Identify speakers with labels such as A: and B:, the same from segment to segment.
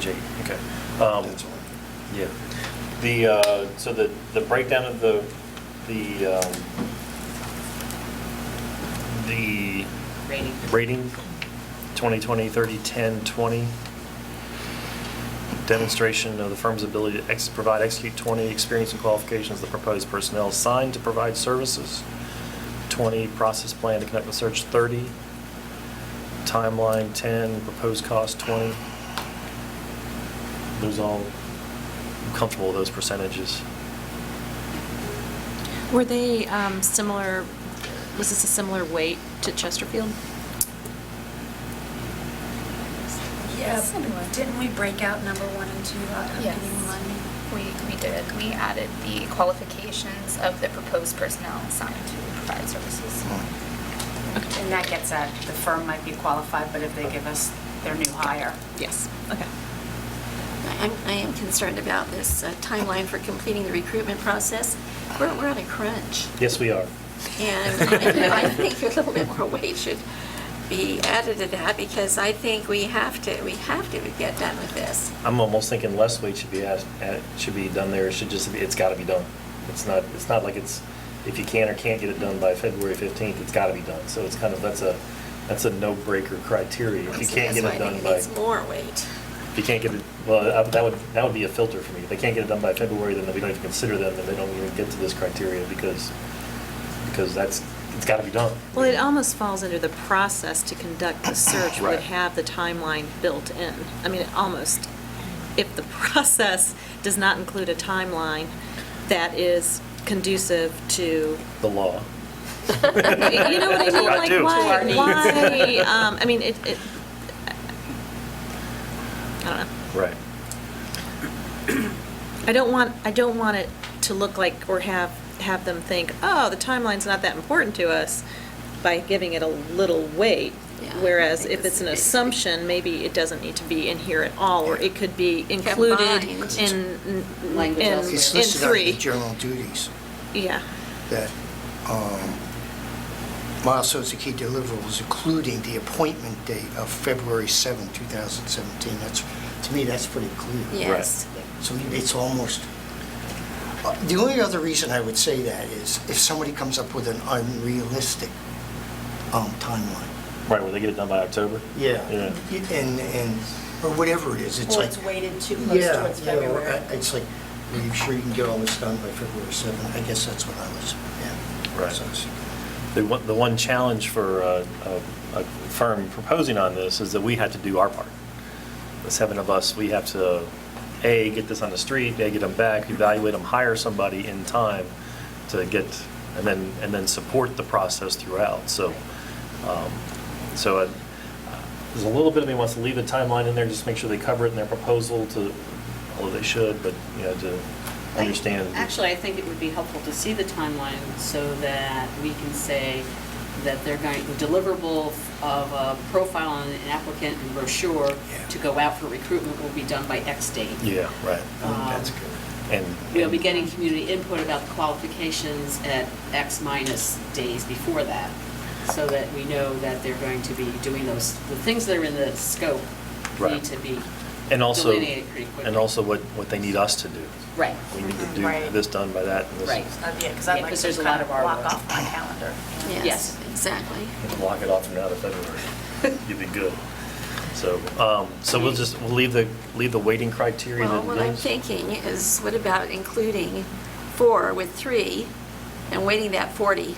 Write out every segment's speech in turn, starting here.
A: G.
B: Okay. Um,
A: That's all.
B: Yeah. The, uh, so the, the breakdown of the, the, um, the
C: rating.
B: rating, 2020, 30, 10, 20, demonstration of the firm's ability to ex- provide, execute 20, experience and qualifications of the proposed personnel assigned to provide services, 20, process plan to conduct the search, 30, timeline, 10, proposed cost, 20. Those all, I'm comfortable with those percentages.
C: Were they um, similar, was this a similar weight to Chesterfield?
D: Yeah,
E: Similar.
D: didn't we break out number one and two out of
E: Yes.
D: meeting one?
E: We, we did, we added the qualifications of the proposed personnel assigned to provide services.
B: Hmm.
F: And that gets at, the firm might be qualified, but if they give us their new hire.
C: Yes, okay.
G: I'm, I am concerned about this uh, timeline for completing the recruitment process. We're, we're on a crunch.
B: Yes, we are.
G: And I I think a little bit more weight should be added to that because I think we have to, we have to get done with this.
B: I'm almost thinking less weight should be asked, at- should be done there, it should just be, it's gotta be done. It's not, it's not like it's, if you can or can't get it done by February 15th, it's gotta be done. So it's kind of, that's a, that's a no-breaker criteria. If you
G: So
B: can't get it
G: That's why I
B: done
G: think
B: by,
G: it needs
B: if
G: more weight.
B: you can't get it, well, I- that would, that would be a filter for me. If they can't get it done by February, then we don't even consider them, and they don't even get to this criteria because, because that's, it's gotta be done.
C: Well, it almost falls under the process to conduct the search would
A: Right.
C: have the timeline built in. I mean, it almost, if the process does not include a timeline that is conducive to
B: The law.
C: You know what I mean?
B: I
C: Like,
B: do.
C: why,
B: To our
C: why,
B: needs.
C: um, I mean, it, it, I don't know.
B: Right.
C: I don't want, I don't want it to look like, or have, have them think, oh, the timeline's not that important to us by giving it a little weight.
G: Yeah,
C: Whereas
G: I think
C: if it's an
G: it's-
C: assumption, maybe it doesn't need to be in here at all, or it could be included
G: Combined.
C: in, in, in
F: Language elsewhere.
A: It's
C: in
A: listed under the
C: three.
A: general duties
C: Yeah,
A: that um, milestones and key deliverables, including the appointment date of February 7, 2017. That's, to me, that's pretty clear.
G: Yes.
A: So it's almost, uh, the only other reason I would say that is if somebody comes up with an unrealistic um, timeline.
B: Right, will they get it done by October?
A: Yeah.
B: Yeah.
A: And, and, or whatever it is, it's
F: Or
A: like.
F: it's weighted too close
A: Yeah,
F: towards
A: yeah, or
F: February.
A: I- It's like, are you sure you can get all this done by February 7th? I guess that's what I was, yeah.
B: Right.
A: So it's-
B: The one, the one challenge for uh, a, a firm proposing on this is that we had to do our part. The seven of us, we have to, A, get this on the street, A, get them back, evaluate them, hire somebody in time to get, and then, and then support the process throughout. So, um, so uh, there's a little bit of me wants to leave the timeline in there, just make sure they cover it in their proposal to, although they should, but, you know, to understand.
H: Actually, I think it would be helpful to see the timeline so that we can say that they're going, deliverable of a profile on an applicant and brochure
A: Yeah.
H: to go out for recruitment will be done by X date.
B: Yeah, right.
A: I think That's
H: Um,
A: good.
B: And.
H: We'll be getting community input about the qualifications at X minus days before that, so that we know that they're going to be doing those, the things that are in the scope
B: Right.
H: need to be
B: And also,
H: delineated pretty quickly.
B: and also what, what they need us to do.
H: Right.
B: We need to do
F: Right.
B: this done by that and this.
H: Right.
F: Uh, Yeah, because I'd
H: Yeah,
F: like
H: 'cause
F: to
H: there's a lot
F: kind of
H: of our
F: block
H: work.
F: off my calendar.
G: Yes,
H: Yes.
G: exactly.
B: Block it off from now to February. You'd be good. So, um, so we'll just, we'll leave the, leave the waiting criteria.
G: Well,
B: that
G: what I'm
B: is-
G: thinking is what about including four with three and waiting that 40?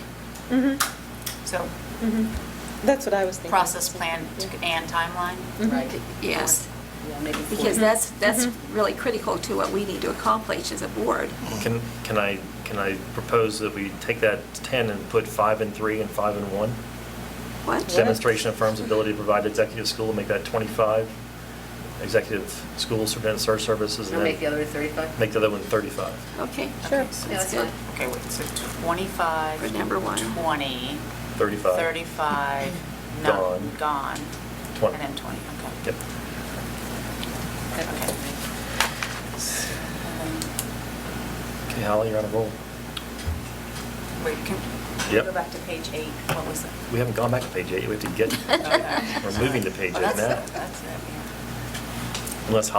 F: So
C: Mm-hmm. that's what I was thinking.
F: process plan to- and timeline?
H: Right.
G: Yes.
H: Yeah, maybe four.
G: Because that's, that's really critical to what we need to accomplish as a board.
B: Can, can I, can I propose that we take that 10 and put five and three and five and one?
G: What?
B: Demonstration of firm's ability to provide executive school, make that 25. Executive school superintendent search services and
H: Or make the
B: then
H: other 35?
B: make the other one 35.
G: Okay.
C: Sure.
G: That's good.
F: Okay, wait, so 25.
G: For number one.
F: 20.
B: 35.
F: 35. no-
B: Gone.
F: Gone.
B: 20.
F: And then 20, okay.
B: Yep.
F: Okay.
B: Okay, Holly, you're on a roll.
F: Wait, can can we
B: Yep.
F: go back to page eight? What was it?
B: We haven't gone back to page eight, we have to get,
F: Okay.
B: we're moving to page
F: Oh,
B: eight
F: that's
B: now,
F: it, That's it, yeah.
B: unless